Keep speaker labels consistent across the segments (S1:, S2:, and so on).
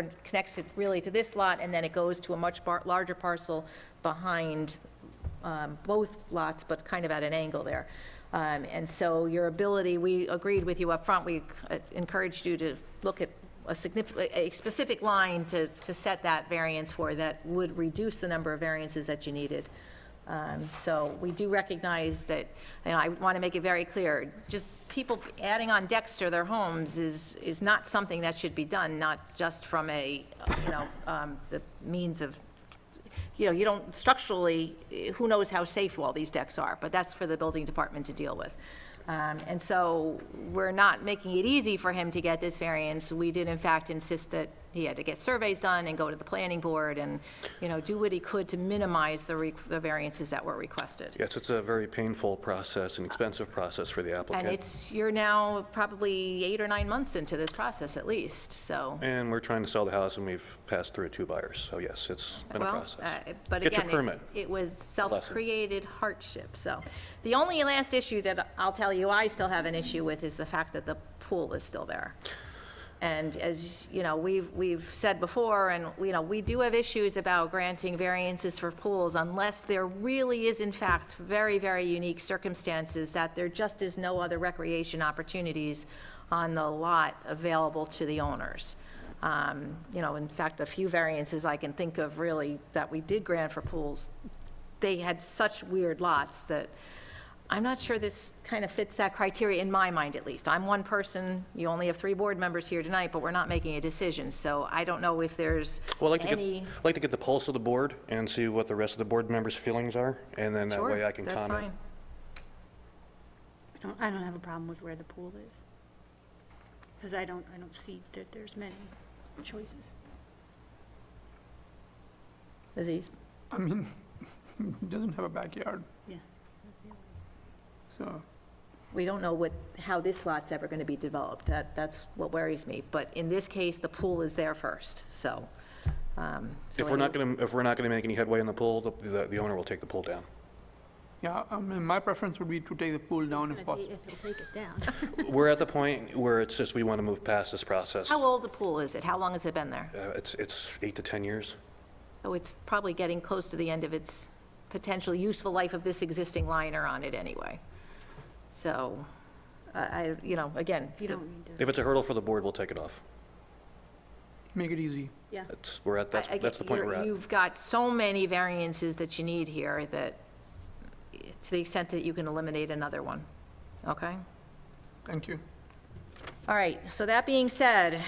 S1: over- connects it really to this lot, and then it goes to a much bar- larger parcel behind um, both lots, but kind of at an angle there. Um, And so your ability, we agreed with you up front. we uh, encouraged you to look at a significant, a specific line to, to set that variance for that would reduce the number of variances that you needed. Um, So we do recognize that, and I want to make it very clear, just people adding on decks to their homes is, is not something that should be done, not just from a, you know, um, the means of, you know, you don't structurally, eh, who knows how safe all these decks are, but that's for the building department to deal with. Um, And so we're not making it easy for him to get this variance. We did in fact insist that he had to get surveys done and go to the planning board and, you know, do what he could to minimize the re- the variances that were requested.
S2: Yes, it's a very painful process, an expensive process for the applicant.
S1: And it's, you're now probably eight or nine months into this process at least, so.
S2: And we're trying to sell the house, and we've passed through two buyers, so yes, it's been a
S1: Well,
S2: process.
S1: uh, But
S2: It's a
S1: again,
S2: permit.
S1: it- it was self-created hardship, so. The only last issue that I'll tell you I still have an issue with is the fact that the pool is still there. And as, you know, we've, we've said before, and, you know, we do have issues about granting variances for pools unless there really is in fact very, very unique circumstances that there just is no other recreation opportunities on the lot available to the owners. Um, You know, in fact, the few variances I can think of really that we did grant for pools, they had such weird lots that I'm not sure this kind of fits that criteria, in my mind at least. I'm one person, you only have three board members here tonight, but we're not making a decision, so I don't know if there's
S2: Well, I'd like to
S1: any...
S2: get, I'd like to get the pulse of the board and see what the rest of the board members' feelings are, and then that
S1: Sure,
S2: way I can
S1: that's
S2: comment.
S1: fine.
S3: I don't, I don't have a problem with where the pool is. Because I don't, I don't see that there's many choices.
S1: Aziz?
S4: I mean, he doesn't have a backyard,
S3: Yeah.
S4: so,
S1: we don't know what, how this lot's ever going to be developed. That, that's what worries me. But in this case, the pool is there first, so. um, so
S2: If we're not
S1: any-
S2: going to, if we're not going to make any headway in the pool, the- the the owner will take the pool down.
S4: yeah, I mean, my preference would be to take the pool down if
S3: If it'll
S4: possible.
S3: take it down.
S2: We're at the point where it's just, we want to move past this process.
S1: How old a pool is it? How long has it been there?
S2: Uh, It's, it's eight to 10 years.
S1: So it's probably getting close to the end of its potential useful life of this existing liner on it anyway. So, I, I- you know, again,
S3: You
S1: the-
S3: don't need to,
S2: If it's a hurdle for the board, we'll take it off.
S4: Make it easy.
S3: yeah.
S2: That's, we're at, that's
S1: I- I get-
S2: that's the point
S1: you're-
S2: we're at.
S1: You've got so many variances that you need here that, to the extent that you can eliminate another one, okay?
S4: Thank you.
S1: All right, so that being said,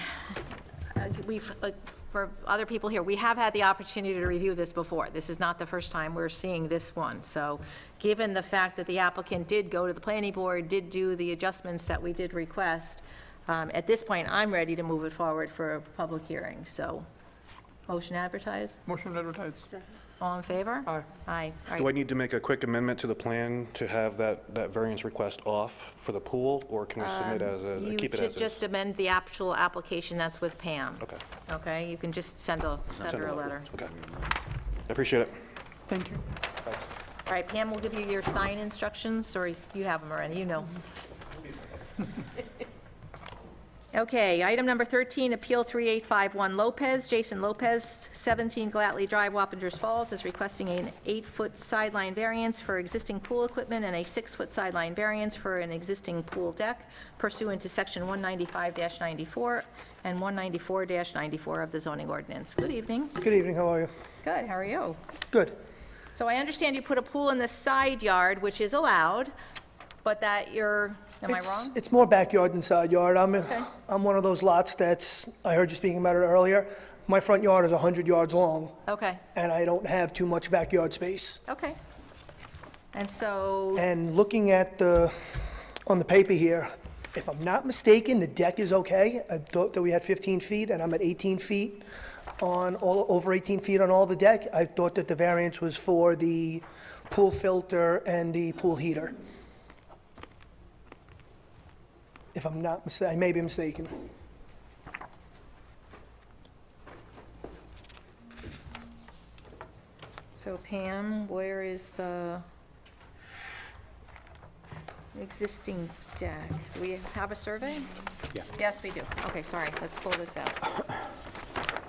S1: uh, we've, uh, for other people here, we have had the opportunity to review this before. This is not the first time we're seeing this one. So given the fact that the applicant did go to the planning board, did do the adjustments that we did request, um, at this point, I'm ready to move it forward for a public hearing. So motion advertised,
S4: Motion to advertise.
S3: So,
S1: all in favor?
S4: Aye.
S1: Aye. All
S2: Do I
S1: right.
S2: need to make a quick amendment to the plan to have that, that variance request off for the pool, or can I submit as a,
S1: Um, You
S2: keep it as
S1: should
S2: is?
S1: just amend the actual application, that's with Pam.
S2: Okay.
S1: Okay, you can just send a, send
S2: Send
S1: her
S2: it
S1: a
S2: over.
S1: letter.
S2: Okay. I appreciate it.
S4: Thank you.
S1: All right, Pam will give you your sign instructions, or you have them already, you know. Okay, item number 13, Appeal 3851 Lopez, Jason Lopez, 17 Glatley Drive, Wappingers Falls, is requesting an eight-foot sideline variance for existing pool equipment and a six-foot sideline variance for an existing pool deck pursuant to Section 195-94 and 194-94 of the zoning ordinance. Good evening.
S5: Good evening, how are you?
S1: Good, how are you?
S5: Good.
S1: So I understand you put a pool in the side yard, which is allowed, but that you're, am I
S5: It's-
S1: wrong?
S5: It's more backyard than side yard. I'm, I'm one of those lots that's, I heard you speaking about it earlier. My front yard is 100 yards long,
S1: Okay,
S5: and I don't have too much backyard space.
S1: okay. And so,
S5: And looking at the, on the paper here, if I'm not mistaken, the deck is okay. I thought that we had 15 feet, and I'm at 18 feet on, all over 18 feet on all the deck. I thought that the variance was for the pool filter and the pool heater. If I'm not mistaken, I may be mistaken.
S1: so Pam, where is the existing deck? Do we have a survey? Yes, we do. Okay, sorry, let's pull this out.